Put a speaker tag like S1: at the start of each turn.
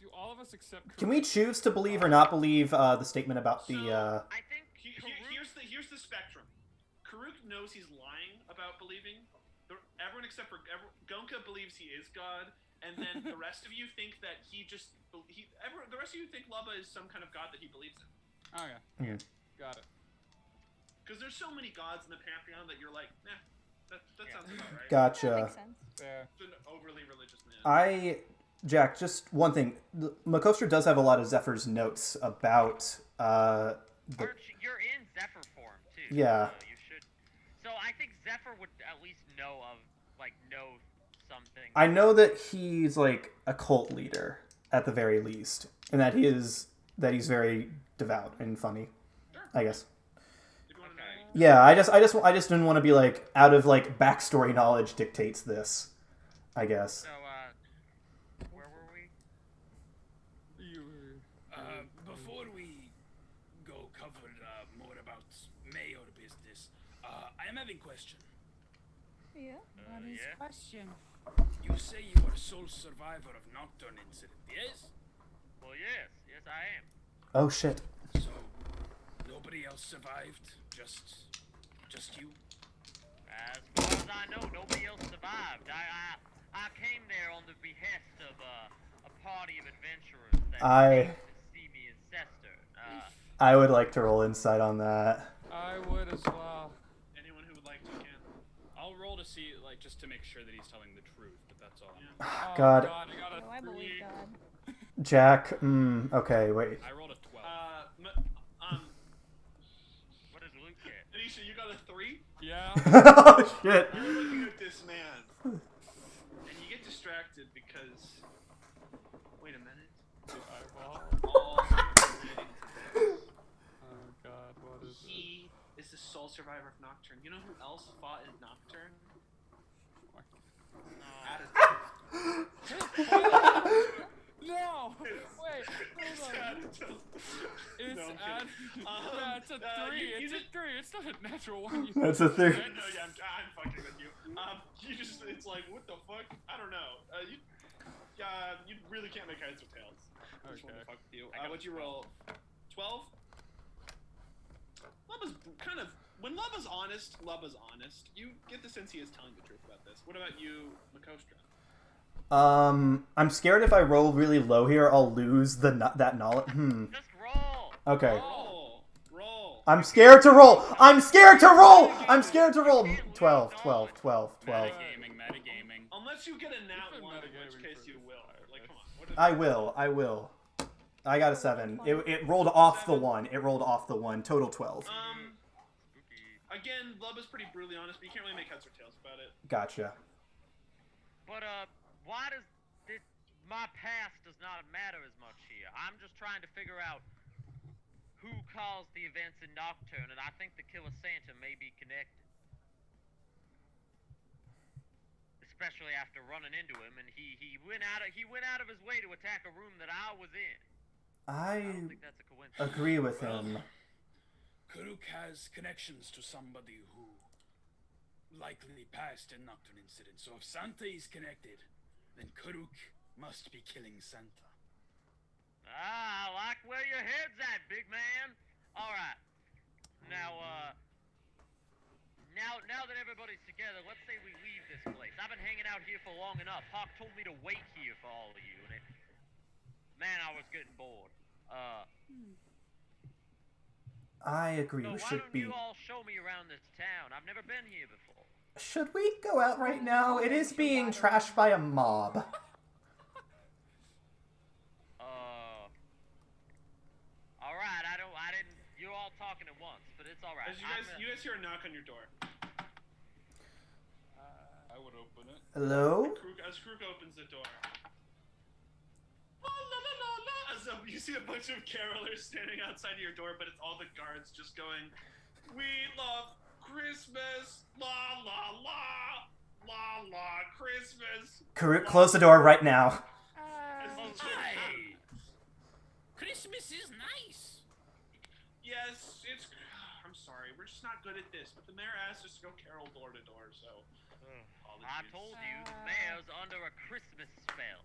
S1: do all of us accept?
S2: Can we choose to believe or not believe uh, the statement about the? Uh...
S3: I think
S4: He- he-
S3: Karuk-
S4: here's the here's the spectrum. Karuk knows he's lying about believing. The, everyone except for everyone, Gonka believes he is God, and then the rest of you think that he just be- he. Everyone, the rest of you think Lubba is some kind of God that he believes in.
S1: Oh yeah.
S2: Hmm.
S1: Got it.
S4: Because there's so many gods in the pantheon that you're like, nah, that, that
S3: Yeah.
S4: sounds about
S5: That
S4: right.
S2: Gotcha.
S5: makes sense.
S1: Yeah.
S4: He's an overly religious man.
S2: I, Jack, just one thing. The- Makostra does have a lot of Zephyr's notes about. Uh, the...
S3: Arch, you're in Zephyr form too.
S2: Yeah.
S3: So you should. So I think Zephyr would at least know of, like, know something.
S2: I know that he's like a cult leader at the very least, and that he is that he's very devout and funny. I guess.
S4: If you want to know.
S2: Yeah, I just, I just, I just didn't want to be like out of like backstory knowledge dictates this. I guess.
S3: So, uh, where were we?
S1: You.
S6: Uh, before we go cover uh, more about mayor business, uh, I am having question.
S5: Yeah.
S7: What is
S3: yeah.
S7: question?
S6: You say you are sole survivor of Nocturne incident, yes?
S3: Well, yes, yes, I am.
S2: Oh shit.
S6: So nobody else survived, just just you.
S3: As far as I know, nobody else survived. I, I, I came there on the behest of uh, a party of adventurers that
S2: I-
S3: came to see me in Sester. Uh,
S2: I would like to roll insight on that.
S1: I would as well.
S4: Anyone who would like to can.
S8: I'll roll to see, like, just to make sure that he's telling the truth, but that's all.
S4: Yeah.
S1: Oh,
S2: God.
S1: I got a
S7: No, I
S1: three.
S7: believe God.
S2: Jack. Mm, okay. Wait.
S8: I rolled a
S3: Oh.
S8: 12.
S4: Uh, m- um,
S3: what did Luke get?
S4: Anisha, you got a three.
S1: Yeah.
S2: oh shit.
S4: You're looking at this man, and you get distracted because. Wait a minute.
S1: Eyeball.
S4: All
S1: Oh God. What is it?
S4: he is the sole survivor of Nocturne. You know who else fought in Nocturne? Attitude.
S1: No. Wait. Hold on. It's
S4: No, I'm kidding.
S1: add-
S4: Um,
S1: yeah, it's a
S4: uh,
S1: three.
S4: you- you
S1: it's
S4: did-
S1: a three. It's not a natural one. You
S2: That's a thing.
S4: I know, yeah, I'm, I'm fucking with you. Um, you just, it's like, what the fuck? I don't know. Uh, you, uh, you really can't make heads or tails. I just wanted to
S1: Okay.
S4: fuck with you. Uh, what'd you roll? 12? Lubba's b- kind of, when Lubba's honest, Lubba's honest. You get the sense he is telling the truth about this. What about you, Makostra?
S2: Um, I'm scared if I roll really low here, I'll lose the no- that knowledge. Hmm.
S3: Just roll.
S2: Okay.
S4: Roll! Roll!
S2: I'm scared to roll. I'm scared to roll. I'm scared to roll. 12, 12, 12, 12.
S8: Metagaming, metagaming.
S4: Unless you get a nat
S1: been
S4: one, in which
S1: metagaming
S4: case
S1: for
S4: you
S1: this
S4: will.
S1: entire
S4: Like,
S1: place.
S4: come on. What is
S2: I will. I will. I got a seven. It, it rolled off the one. It rolled off the one. Total 12.
S4: Um, again, Lubba's pretty brutally honest, but you can't really make heads or tails about it.
S2: Gotcha.
S3: But, uh, why does this, my past does not matter as much here? I'm just trying to figure out who caused the events in Nocturne, and I think the Killer Santa may be connected. Especially after running into him, and he, he went out of he went out of his way to attack a room that I was in.
S2: I
S3: I don't think that's a coincidence.
S2: agree with him.
S6: Karuk has connections to somebody who likely passed in Nocturne incident. So if Santa is connected, then Karuk must be killing Santa.
S3: Ah, I like where your head's at, big man. All right. Now, uh, now, now that everybody's together, let's say we leave this place. I've been hanging out here for long enough. Hawk told me to wait here for all of you, and it, man, I was getting bored. Uh,
S2: I agree.
S3: so
S2: We
S3: why
S2: should
S3: don't
S2: be.
S3: you all show me around this town? I've never been here before.
S2: Should we go out right now? It is being trashed by a mob.
S3: Uh, all right. I don't. I didn't. You're all talking at once, but it's all right.
S4: As you
S3: I'm
S4: guys,
S3: gonna-
S4: you guys hear a knock on your door.
S8: I would open it.
S2: Hello?
S4: Krug, as Krug opens the door, "La, la, la, la, la," as a- you see a bunch of carolers standing outside of your door, but it's all the guards just going, "We love Christmas, la la la, la la Christmas."
S2: Karuk, close the door right now.
S4: As the children-
S6: Aye. Christmas is nice.
S4: yes, it's. I'm sorry, we're just not good at this. But the mayor asked us to go carol door to door, so.
S3: I told you the
S7: Uh,
S3: mayor's under a Christmas spell.